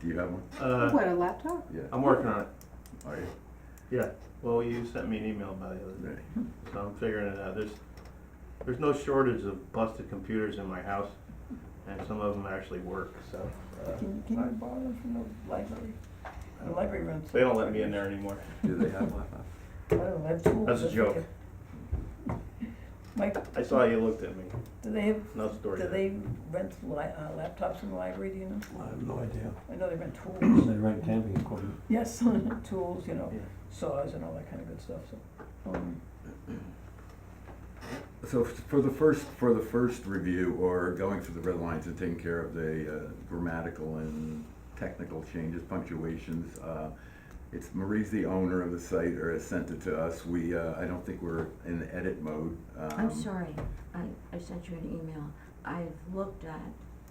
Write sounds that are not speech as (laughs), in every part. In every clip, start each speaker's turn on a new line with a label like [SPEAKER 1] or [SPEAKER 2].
[SPEAKER 1] Do you have one?
[SPEAKER 2] Uh,
[SPEAKER 3] What, a laptop?
[SPEAKER 1] Yeah.
[SPEAKER 2] I'm working on it.
[SPEAKER 1] Are you?
[SPEAKER 2] Well, you sent me an email about it, the other
[SPEAKER 1] Ready?
[SPEAKER 2] day, so I'm figuring it out. There's, there's no shortage of busted computers in my house, and some of them actually work, so. uh,
[SPEAKER 4] Can, can you borrow them from the library? The library runs.
[SPEAKER 2] They don't let me in there anymore.
[SPEAKER 1] Do they have Wi-Fi?
[SPEAKER 4] I don't have tools.
[SPEAKER 2] That's a joke.
[SPEAKER 4] Mike,
[SPEAKER 2] I saw you looked at me,
[SPEAKER 4] do they have,
[SPEAKER 2] no story.
[SPEAKER 4] do
[SPEAKER 2] there.
[SPEAKER 4] they rent li- uh, laptops in the library, do you know?
[SPEAKER 5] I have no idea.
[SPEAKER 4] I know they rent tools,
[SPEAKER 5] They rent camping equipment.
[SPEAKER 4] yes, (laughs) tools, you know,
[SPEAKER 2] Yeah.
[SPEAKER 4] saws and all that kind of good stuff, so. um,
[SPEAKER 1] (laughs) So f- for the first, for the first review or going through the red lines and taking care of the uh, grammatical and technical changes, punctuations, uh, it's Marie's the owner of the site or has sent it to us. We, uh, I don't think we're in edit mode.
[SPEAKER 6] I'm
[SPEAKER 1] Um,
[SPEAKER 6] sorry, I, I sent you an email. I've looked at,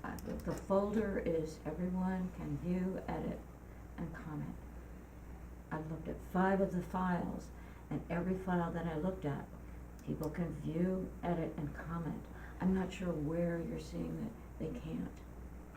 [SPEAKER 6] uh, the- the folder is everyone can view, edit, and comment. I've looked at five of the files, and every file that I looked at, people can view, edit, and comment. I'm not sure where you're seeing that they can't.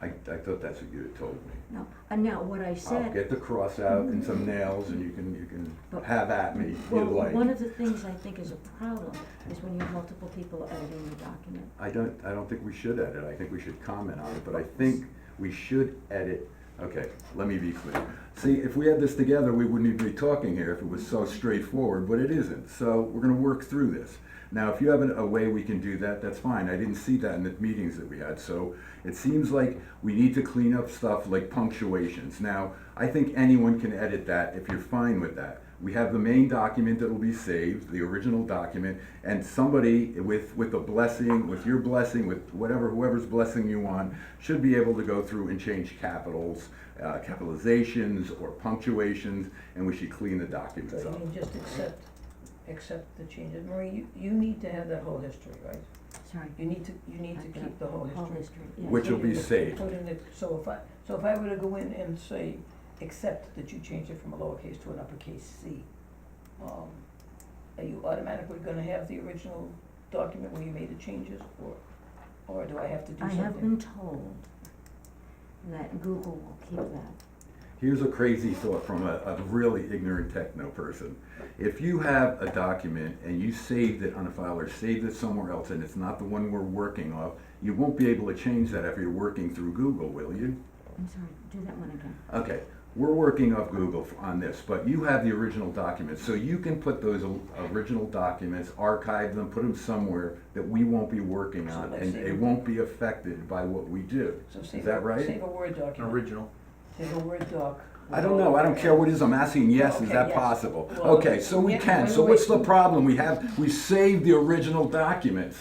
[SPEAKER 1] I, I thought that's what you had told me.
[SPEAKER 6] No, and now what I
[SPEAKER 1] I'll
[SPEAKER 6] said,
[SPEAKER 1] get the cross out and some nails and you can, you can
[SPEAKER 6] But-
[SPEAKER 1] have at me if you
[SPEAKER 6] well,
[SPEAKER 1] like.
[SPEAKER 6] one of the things I think is a problem is when you have multiple people editing the document.
[SPEAKER 1] I don't, I don't think we should edit, I think we should comment on it, but I think we should edit, okay, let me be clear. See, if we had this together, we wouldn't even be talking here if it was so straightforward, but it isn't, so we're gonna work through this. Now, if you have an- a way we can do that, that's fine, I didn't see that in the meetings that we had, so it seems like we need to clean up stuff like punctuations. Now, I think anyone can edit that if you're fine with that. We have the main document that will be saved, the original document, and somebody with, with a blessing, with your blessing, with whatever, whoever's blessing you want, should be able to go through and change capitals, uh, capitalizations or punctuations, and we should clean the
[SPEAKER 4] So
[SPEAKER 1] documents
[SPEAKER 4] you
[SPEAKER 1] up.
[SPEAKER 4] mean just accept, accept the changes, Marie, you, you need to have that whole history, right?
[SPEAKER 6] Sorry,
[SPEAKER 4] You need to, you need to keep the whole
[SPEAKER 6] all
[SPEAKER 4] history.
[SPEAKER 6] history, yes.
[SPEAKER 1] Which will be
[SPEAKER 4] Put in the-
[SPEAKER 1] saved.
[SPEAKER 4] Put in the, so if I, so if I were to go in and say, accept that you changed it from a lowercase to an uppercase C, um, are you automatically gonna have the original document where you made the changes, or, or do I have to do
[SPEAKER 6] I
[SPEAKER 4] something?
[SPEAKER 6] have been told that Google will keep that.
[SPEAKER 1] Here's a crazy thought from a, a really ignorant techno person. If you have a document and you saved it on a file or saved it somewhere else and it's not the one we're working off, you won't be able to change that if you're working through Google, will you?
[SPEAKER 6] I'm sorry, do that one again.
[SPEAKER 1] Okay, we're working off Google f- on this, but you have the original documents, so you can put those o- original documents, archive them, put them somewhere that we won't be working
[SPEAKER 4] So
[SPEAKER 1] on,
[SPEAKER 4] let's
[SPEAKER 1] and
[SPEAKER 4] see.
[SPEAKER 1] it won't be affected by what we do.
[SPEAKER 4] So save,
[SPEAKER 1] that right?
[SPEAKER 4] save a Word document,
[SPEAKER 2] Original.
[SPEAKER 4] save a Word doc.
[SPEAKER 1] I don't know, I don't care what it is, I'm asking, yes, is
[SPEAKER 4] Okay,
[SPEAKER 1] that
[SPEAKER 4] yes.
[SPEAKER 1] possible?
[SPEAKER 4] Well,
[SPEAKER 1] Okay, so we
[SPEAKER 4] yeah,
[SPEAKER 1] can,
[SPEAKER 4] wait,
[SPEAKER 1] so what's
[SPEAKER 4] wait.
[SPEAKER 1] the problem? We have, we saved the original documents.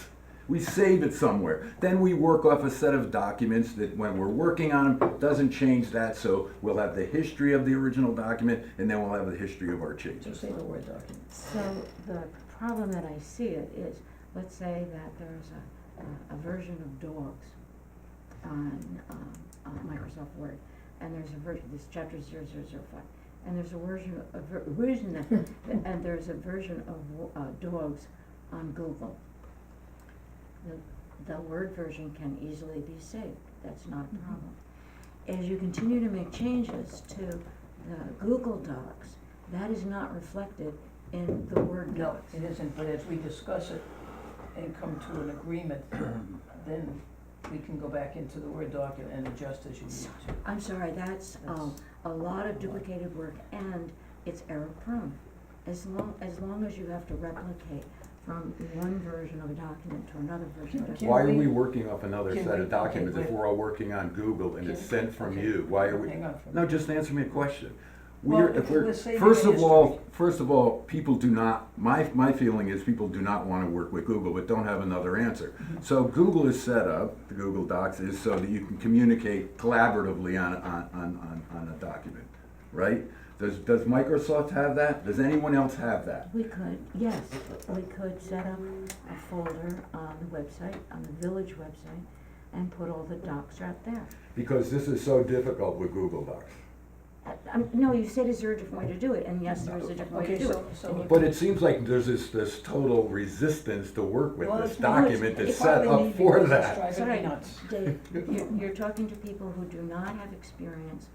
[SPEAKER 1] We save it somewhere. Then we work off a set of documents that when we're working on them, doesn't change that, so we'll have the history of the original document, and then we'll have the history of our
[SPEAKER 4] So
[SPEAKER 1] changes.
[SPEAKER 4] save a Word document.
[SPEAKER 6] So the problem that I see it is, let's say that there's a, a, a version of dogs on, um, on Microsoft Word, and there's a version, this chapter zero zero zero five, and there's a version, a ver- version, of-
[SPEAKER 4] (laughs)
[SPEAKER 6] and there's a version of, uh, dogs on Google. The, the Word version can easily be saved, that's not
[SPEAKER 4] Mm-hmm.
[SPEAKER 6] a problem. As you continue to make changes to the Google Docs, that is not reflected in the Word
[SPEAKER 4] No,
[SPEAKER 6] docs.
[SPEAKER 4] it isn't, but as we discuss it and come to
[SPEAKER 1] (clears throat)
[SPEAKER 4] an agreement, then we can go back into the Word doc and- and adjust as you need to.
[SPEAKER 6] I'm sorry, that's, um, a lot of duplicated work and it's error prone. As long, as long as you have to replicate from one version of a document to another version of a
[SPEAKER 4] Can
[SPEAKER 1] Why are we
[SPEAKER 4] we-
[SPEAKER 1] working off another
[SPEAKER 4] can
[SPEAKER 1] set of
[SPEAKER 4] we- okay,
[SPEAKER 1] documents if
[SPEAKER 4] wait.
[SPEAKER 1] we're all working on Google and it's
[SPEAKER 4] Can-
[SPEAKER 1] sent from
[SPEAKER 4] okay.
[SPEAKER 1] you? Why are we?
[SPEAKER 4] Hang on for a
[SPEAKER 1] No,
[SPEAKER 4] minute.
[SPEAKER 1] just answer me a question.
[SPEAKER 4] Well,
[SPEAKER 1] We're, if
[SPEAKER 4] if
[SPEAKER 1] we're,
[SPEAKER 4] we're saving
[SPEAKER 1] first
[SPEAKER 4] the
[SPEAKER 1] of all, first of all, people do not, my, my feeling is people do not wanna work with Google, but don't have another answer.
[SPEAKER 4] Mm-hmm.
[SPEAKER 1] So Google is set up, the Google Docs is so that you can communicate collaboratively on, on, on, on, on a document, right? Does, does Microsoft have that? Does anyone else have that?
[SPEAKER 6] We could, yes, we could set up a folder on the website, on the village website, and put all the docs out there.
[SPEAKER 1] Because this is so difficult with Google Docs.
[SPEAKER 6] Uh, um, no, you said, is there a different way to do it? And yes, there is a different way to
[SPEAKER 4] Okay,
[SPEAKER 6] do it.
[SPEAKER 4] so, so,
[SPEAKER 1] But it seems like there's this, this total resistance to work with
[SPEAKER 4] Well,
[SPEAKER 1] this
[SPEAKER 4] it's not-
[SPEAKER 1] document that's
[SPEAKER 4] it's
[SPEAKER 1] set
[SPEAKER 4] probably
[SPEAKER 1] up for
[SPEAKER 4] because it's
[SPEAKER 1] that.
[SPEAKER 4] driving me
[SPEAKER 6] Sorry.
[SPEAKER 4] nuts.
[SPEAKER 6] Dave, you're, you're talking to people who do not have experience